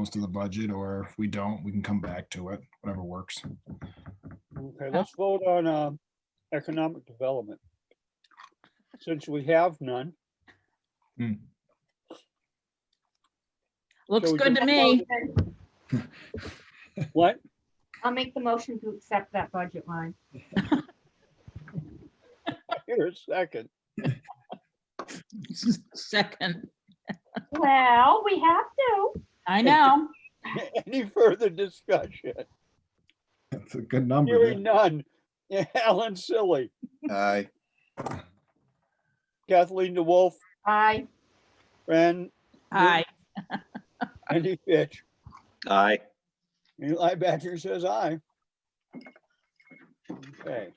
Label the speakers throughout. Speaker 1: most of the budget, or if we don't, we can come back to it, whatever works.
Speaker 2: Okay, let's vote on uh, economic development. Since we have none.
Speaker 1: Hmm.
Speaker 3: Looks
Speaker 2: shall we
Speaker 3: good
Speaker 2: just
Speaker 3: to
Speaker 2: vote
Speaker 3: me.
Speaker 2: on- What?
Speaker 4: I'll make the motion to accept that budget line.
Speaker 2: Here, a second.
Speaker 3: Second,
Speaker 4: Well, we have to.
Speaker 3: I know.
Speaker 2: Any further discussion?
Speaker 1: That's a good number.
Speaker 2: Hearing
Speaker 1: there.
Speaker 2: none. Alan Silly,
Speaker 5: Aye.
Speaker 2: Kathleen DeWolf,
Speaker 4: I,
Speaker 2: Fran
Speaker 3: Aye.
Speaker 2: Andy Fitch.
Speaker 5: Aye.
Speaker 2: Eli Badger says aye. Okay.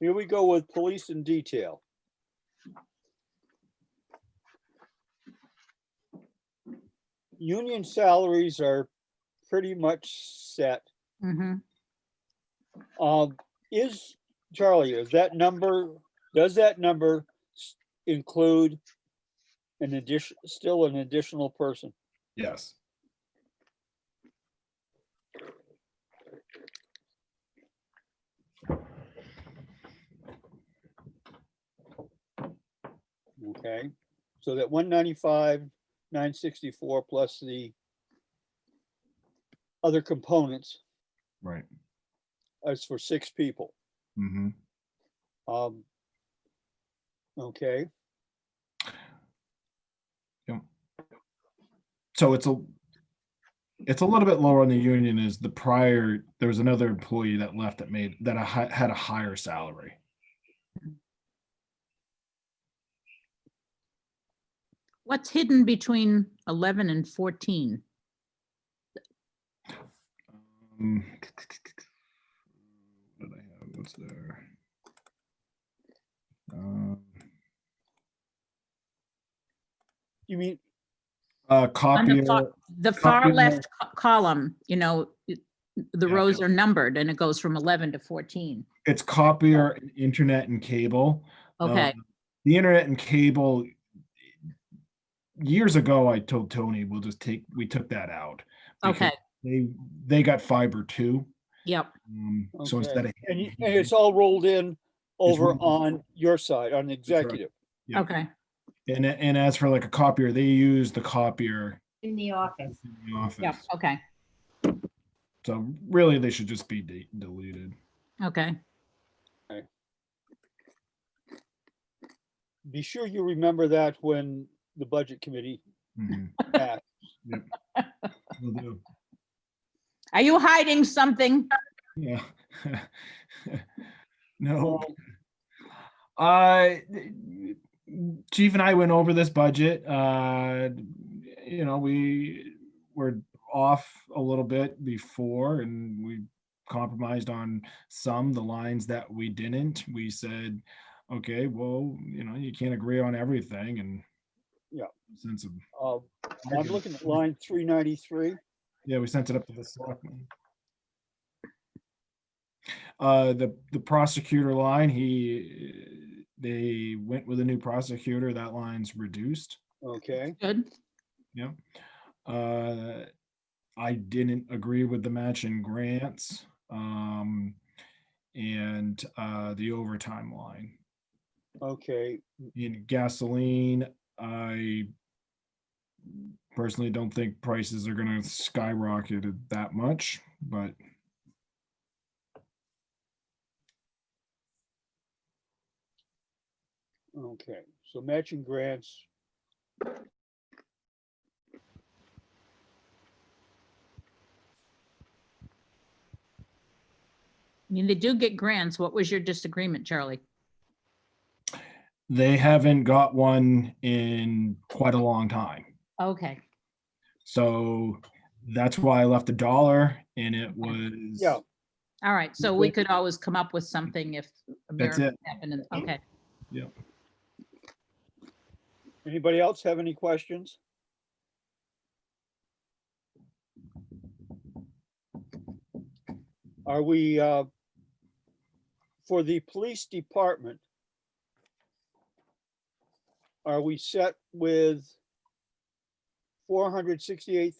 Speaker 2: Here we go with police and detail. Union salaries are pretty much set.
Speaker 3: Mhm.
Speaker 2: Um, is, Charlie, is that number, does that number s- include an addition, still an additional person?
Speaker 1: Yes.
Speaker 2: Okay, so that one ninety-five, nine sixty-four plus the other components
Speaker 1: Right.
Speaker 2: is for six people.
Speaker 1: Mm-hmm.
Speaker 2: Um, okay,
Speaker 1: So it's a, it's a little bit lower on the union is the prior, there was another employee that left that made, that a hi- had a higher salary.
Speaker 3: What's hidden between 11 and 14?
Speaker 1: Um, What did I have? What's there? Um,
Speaker 2: you mean,
Speaker 1: Uh,
Speaker 3: On the
Speaker 1: copier,
Speaker 3: far- The
Speaker 1: copy
Speaker 3: far
Speaker 1: the-
Speaker 3: left co- column, you know, it- the
Speaker 1: Yeah.
Speaker 3: rows are numbered and it goes from 11 to 14.
Speaker 1: it's copier, and internet and cable. Um,
Speaker 3: Okay,
Speaker 1: The internet and cable, years ago, I told Tony, we'll just take, we took that out. because
Speaker 3: okay,
Speaker 1: They, they got fiber too.
Speaker 3: yep,
Speaker 1: Um, so instead
Speaker 2: okay,
Speaker 1: of.
Speaker 2: and you- and it's all rolled in over
Speaker 1: rolled in.
Speaker 2: on your side, on the executive.
Speaker 1: Yeah.
Speaker 3: okay.
Speaker 1: And, and as for like a copier, they use the copier
Speaker 4: in the office.
Speaker 1: in the office.
Speaker 3: Yep, okay,
Speaker 1: So really, they should just be de- deleted.
Speaker 3: okay.
Speaker 2: Be sure you remember that when the budget committee
Speaker 1: Mhm.
Speaker 2: acts.
Speaker 1: Will do.
Speaker 3: Are you hiding something?
Speaker 1: Yeah. No.
Speaker 2: Well,
Speaker 1: Uh, Chief and I went over this budget. Uh, you know, we were off a little bit before and we compromised on some, the lines that we didn't. We said, okay, well, you know, you can't agree on everything and
Speaker 2: Yeah.
Speaker 1: Sense of,
Speaker 2: uh, I'm looking at line three ninety-three.
Speaker 1: yeah, we sent it up to the selectmen. Uh, the, the prosecutor line, he, they went with a new prosecutor. That line's reduced.
Speaker 2: Okay,
Speaker 3: Good,
Speaker 1: Yeah. Uh, I didn't agree with the matching grants, um, and, uh, the overtime line.
Speaker 2: okay,
Speaker 1: In gasoline, I personally don't think prices are gonna skyrocket it that much, but
Speaker 2: okay. So matching grants.
Speaker 3: I mean, they do get grants. What was your disagreement, Charlie?
Speaker 1: they haven't got one in quite a long time.
Speaker 3: Okay,
Speaker 1: So that's why I left a dollar and it was.
Speaker 2: Yeah.
Speaker 3: all right, so we could always come up with something if. a
Speaker 1: That's
Speaker 3: miracle happened. and- Okay,
Speaker 2: Anybody else have any questions? Are we, uh, for the police department? Are we set with four hundred sixty-eight